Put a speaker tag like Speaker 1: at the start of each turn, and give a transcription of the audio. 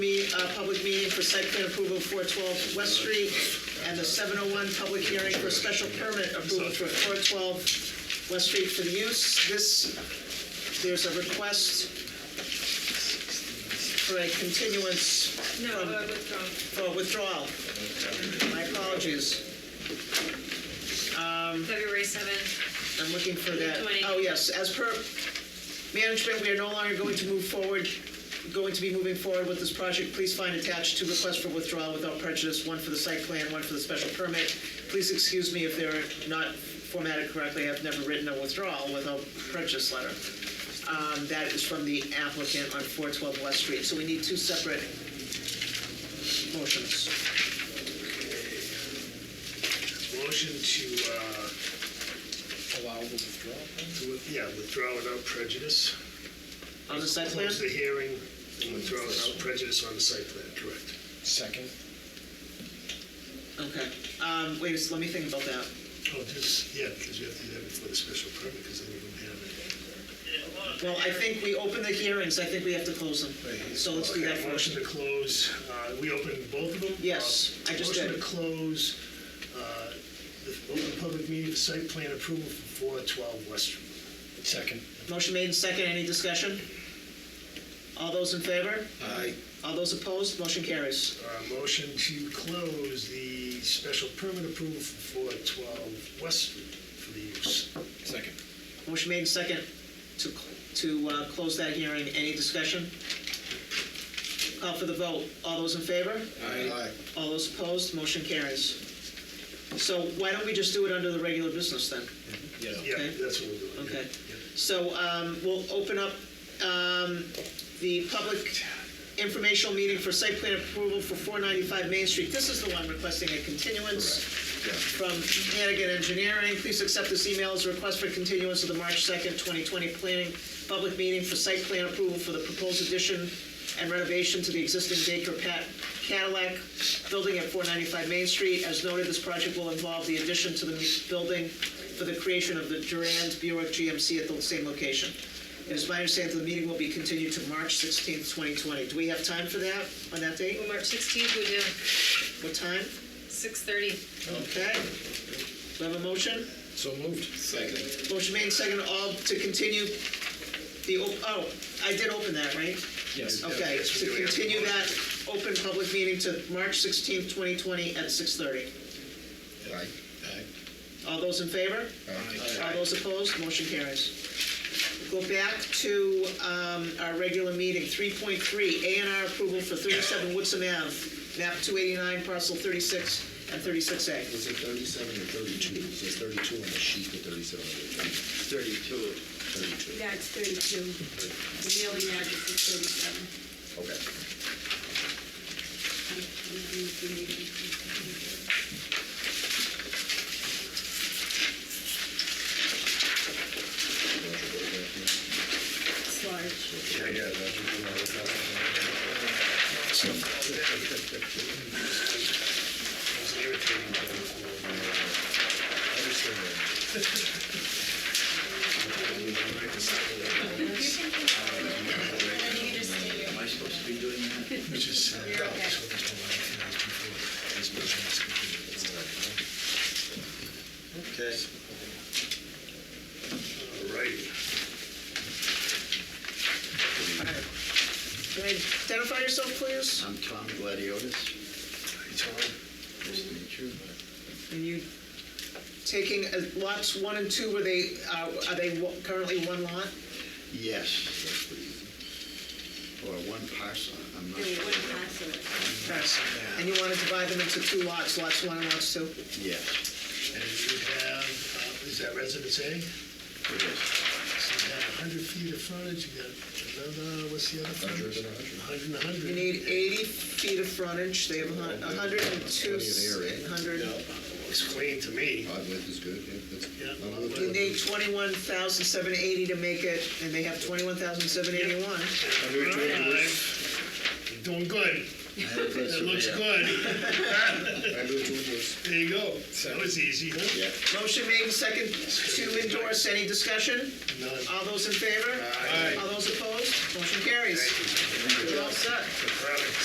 Speaker 1: uh, public meeting for site plan approval four twelve West Street, and the seven oh one public hearing for special permit approval for four twelve West Street for the use. This, there's a request for a continuance
Speaker 2: No,
Speaker 1: from-
Speaker 2: uh, withdrawn.
Speaker 1: for withdrawal. My apologies.
Speaker 2: um, February seventh.
Speaker 1: I'm looking for that.
Speaker 2: Twenty.
Speaker 1: Oh, yes, as per management, we are no longer going to move forward, going to be moving forward with this project. Please find attached two requests for withdrawal without prejudice, one for the site plan, one for the special permit. Please excuse me if they're not formatted correctly, I've never written a withdrawal without prejudice letter. Um, That is from the applicant on 412 West Street, so we need two separate motions.
Speaker 3: Motion to, uh,
Speaker 4: allow the withdrawal.
Speaker 3: to with- yeah, withdraw without prejudice.
Speaker 1: On the site plan?
Speaker 3: Close the hearing and withdraw without prejudice on the site plan, correct?
Speaker 4: Second.
Speaker 1: Okay. Um, Wait, a s- let me think about that.
Speaker 3: Oh, just, yeah, because you have to do that before the special permit, because then you don't have it.
Speaker 1: Well, I think we open the hearings, I think we have to close them. So let's do that
Speaker 3: Okay,
Speaker 1: first.
Speaker 3: Motion to close, uh, we opened both of them?
Speaker 1: Yes,
Speaker 3: Uh,
Speaker 1: I just
Speaker 3: Motion
Speaker 1: did.
Speaker 3: to close uh, the open public meeting, the site plan approval for 412 West Street.
Speaker 4: Second.
Speaker 1: Motion made and second, any discussion? All those in favor?
Speaker 4: Aye.
Speaker 1: All those opposed, motion carries.
Speaker 3: Uh, Motion to close the special permit approval for 412 West Street for the use.
Speaker 4: Second.
Speaker 1: Motion made and second to, to uh, close that hearing, any discussion? Call for the vote, all those in favor?
Speaker 4: Aye.
Speaker 1: All those opposed, motion carries. So why don't we just do it under the regular business then?
Speaker 3: Yeah,
Speaker 1: Okay.
Speaker 3: that's what we're doing. yeah,
Speaker 1: Okay.
Speaker 3: yeah.
Speaker 1: So um, we'll open up um, the public informational meeting for site plan approval for 495 Main Street. This is the one requesting a continuance from Hannigan Engineering. Please accept this email as a request for continuance of the March 2nd, 2020 planning public meeting for site plan approval for the proposed addition and renovation to the existing Baker Pat Cadillac building at 495 Main Street. As noted, this project will involve the addition to the building for the creation of the Durand Buick GMC at the same location. It is my understanding that the meeting will be continued to March 16th, 2020. Do we have time for that, on that date?
Speaker 2: Well, March sixteenth, we do,
Speaker 1: What time?
Speaker 2: six thirty.
Speaker 1: Okay. Do I have a motion?
Speaker 4: So moved. Second.
Speaker 1: Motion made, second, all to continue the, op- oh, I did open that, right?
Speaker 4: Yes.
Speaker 1: Okay,
Speaker 3: Yes,
Speaker 1: to
Speaker 3: we do have
Speaker 1: continue
Speaker 3: a
Speaker 1: that
Speaker 3: motion.
Speaker 1: open public meeting to March 16th, 2020 at 6:30.
Speaker 4: Aye.
Speaker 1: All those in favor?
Speaker 4: Aye.
Speaker 1: All those opposed, motion carries. Go back to um, our regular meeting, 3.3, A and R approval for 37 Woodsum Ave, map 289, parcel 36 and 36A.
Speaker 5: Was it thirty-seven or thirty-two? It says thirty-two on the sheet, but thirty-seven on the.
Speaker 6: Thirty-two.
Speaker 5: Thirty-two.
Speaker 7: Yeah, it's 32. The mailing address is 37.
Speaker 5: Okay.
Speaker 7: I'm- I'm not in the meeting. It's large.
Speaker 3: It's irritating, but-
Speaker 6: Am I supposed to be doing that?
Speaker 3: Which is, uh,
Speaker 7: You're okay.
Speaker 3: that's what it's all like, you know, before this business completed.
Speaker 6: Okay.
Speaker 3: All right.
Speaker 1: Can I Identify yourself, please.
Speaker 6: I'm Tom Gladiotis.
Speaker 3: Hey, Tom.
Speaker 6: Nice to meet you.
Speaker 1: And you taking uh, lots one and two, were they, uh, are they wa- currently one lot?
Speaker 6: Yes, that's pretty easy. Or one parcel, I'm not
Speaker 7: There were
Speaker 6: sure.
Speaker 7: one parcel.
Speaker 1: Yes. And you want to divide them into two lots, lots one and lots two?
Speaker 6: Yes,
Speaker 3: And you have, uh, is that residence A? So
Speaker 6: it is.
Speaker 3: you got 100 feet of frontage, you got another, what's the other frontage?
Speaker 5: 100 and 100.
Speaker 3: 100 and 100.
Speaker 1: You need 80 feet of frontage, they have a hun- a 102,
Speaker 5: Plenty of
Speaker 1: 100.
Speaker 5: area.
Speaker 3: It's clean to me.
Speaker 5: Odd width is good, yeah, that's.
Speaker 3: Yeah.
Speaker 5: not a lot of
Speaker 1: You
Speaker 3: You
Speaker 1: need
Speaker 5: width.
Speaker 1: 21,780 to make it, and they have 21,781.
Speaker 3: All right. You're doing good. That looks good.
Speaker 5: I moved to endorse.
Speaker 3: There you go. That was easy, huh?
Speaker 5: Yeah.
Speaker 1: Motion made and second to endorse, any discussion?
Speaker 3: None.
Speaker 1: All those in favor?
Speaker 3: Aye.
Speaker 1: All those opposed? Motion carries.
Speaker 3: Thank you.
Speaker 1: You're all set.
Speaker 3: Proud of you.